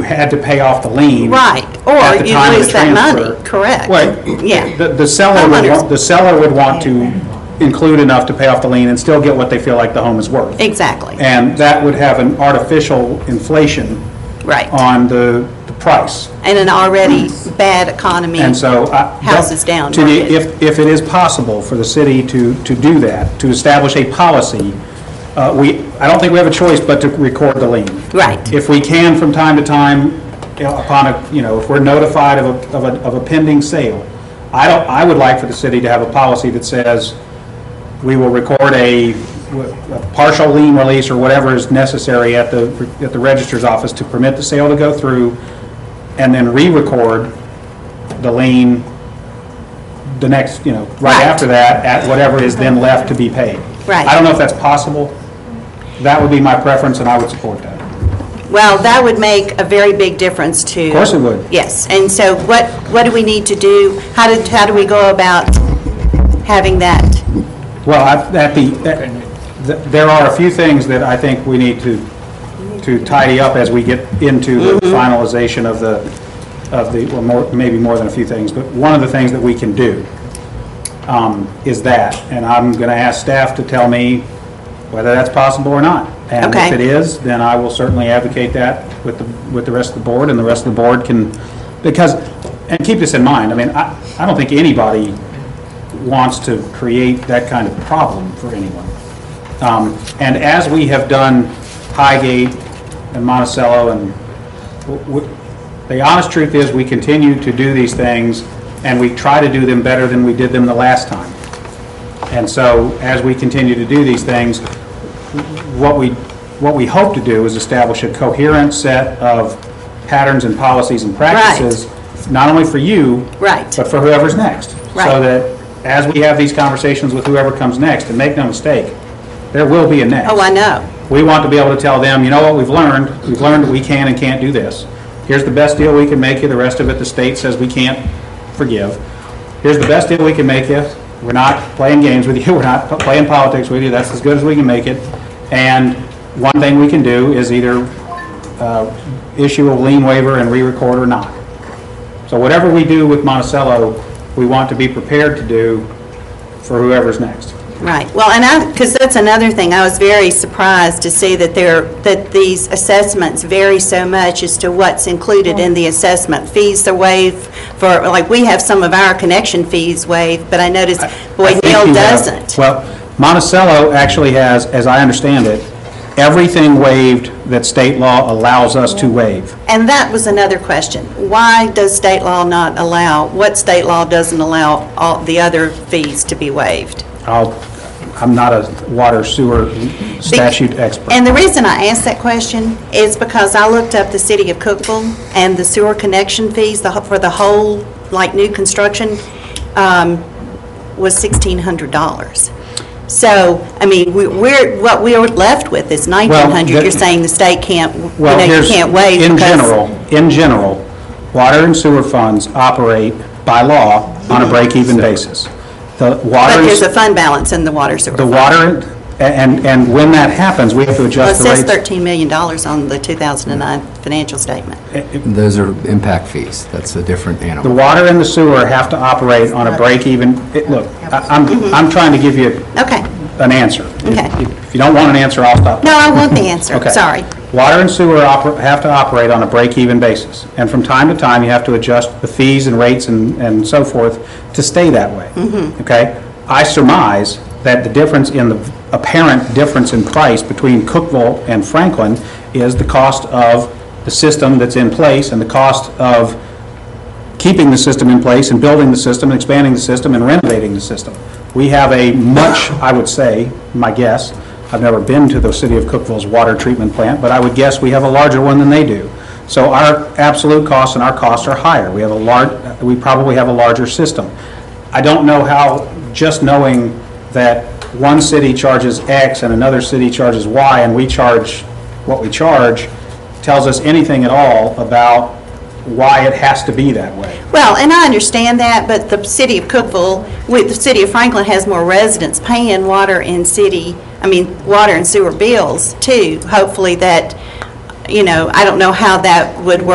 had to pay off the lien. Right, at the or you time of the lose that money, transfer. correct? Well, Yeah, the the seller would, Homeowners. want- the seller would want to include enough to pay off the lien and still get what they feel like the home is worth. exactly, And that would have an artificial inflation right. on the the price. And an already bad economy. And so I... Houses down. To the, market. if, if it is possible for the city to, to do that, to establish a policy, uh, we, I don't think we have a choice but to record the lien. Right. If we can from time to time, you know, upon a, you know, if we're notified of a, of a, of a pending sale, I don't, I would like for the city to have a policy that says we will record a a partial lien release or whatever is necessary at the, at the registrar's office to permit the sale to go through, and then re-record the lien the next, you know, right Right. after that, at whatever is then left to be paid. Right. I don't know if that's possible. That would be my preference, and I would support that. Well, that would make a very big difference to... Of course it would. Yes, and so what, what do we need to do? How did, how do we go about having that? Well, I- at the, at- th- there are a few things that I think we need to, to tidy up as we get into the finalization of the, of the, well, more, maybe more than a few things, but one of the things that we can do um, is that, and I'm going to ask staff to tell me whether that's possible or not. And Okay. if it is, then I will certainly advocate that with the, with the rest of the board, and the rest of the board can, because, and keep this in mind, I mean, I, I don't think anybody wants to create that kind of problem for anyone. Um, And as we have done Highgate and Monticello, and w- w- the honest truth is, we continue to do these things, and we try to do them better than we did them the last time. And so, as we continue to do these things, what we, what we hope to do is establish a coherent set of patterns and policies and practices, not only for you. Right. But for whoever's next. Right. So that as we have these conversations with whoever comes next, and make no mistake, there will be a next. Oh, I know. We want to be able to tell them, you know what, we've learned, we've learned that we can and can't do this. Here's the best deal we can make you, the rest of it, the state says we can't forgive. Here's the best deal we can make you, we're not playing games with you, we're not p- playing politics with you, that's as good as we can make it. And one thing we can do is either uh, issue a lien waiver and re-record or not. So whatever we do with Monticello, we want to be prepared to do for whoever's next. Right, well, and I, because that's another thing, I was very surprised to see that there, that these assessments vary so much as to what's included in the assessment. Fees are waived for, like, we have some of our connection fees waived, but I noticed I Boyd think Hill you have- doesn't. Well, Monticello actually has, as I understand it, everything waived that state law allows us to waive. And that was another question. Why does state law not allow, what state law doesn't allow all the other fees to be waived? I'll, I'm not a water sewer statute expert. And the reason I asked that question is because I looked up the city of Cookville and the sewer connection fees the ho- for the whole, like, new construction um, was $1,600. So, I mean, we- we're, what we are left with is $1,900. the- You're saying the state can't, you Well, know, you here's- can't waive In because... general, in general, water and sewer funds operate by law on a break-even basis. The water. But and there's s- a fund balance in the water sewer The fund. water, and, and when that happens, we have to Well, it adjust the says rates. $13 million on the 2009 financial statement. Eh. Those are impact fees. That's a different The animal. water and the sewer have to operate on a break-even, it- look, I- I'm, I'm trying to give you Okay. an answer. Okay. If if you don't want an answer, I'll stop. No, I want the answer. Okay. Sorry. Water and sewer oper- have to operate on a break-even basis, and from time to time, you have to adjust the fees and rates and and so forth to stay that way. Mm-hmm. Okay? I surmise that the difference in the apparent difference in price between Cookville and Franklin is the cost of the system that's in place and the cost of keeping the system in place and building the system, and expanding the system, and renovating the system. We have a much, I would say, my guess, I've never been to the city of Cookville's water treatment plant, but I would guess we have a larger one than they do. So our absolute costs and our costs are higher. We have a large, we probably have a larger system. I don't know how, just knowing that one city charges X and another city charges Y, and we charge what we charge, tells us anything at all about why it has to be that way. Well, and I understand that, but the city of Cookville, with, the city of Franklin has more residents paying water and city, I mean, water and sewer bills too. Hopefully that, you know, I don't know how that would work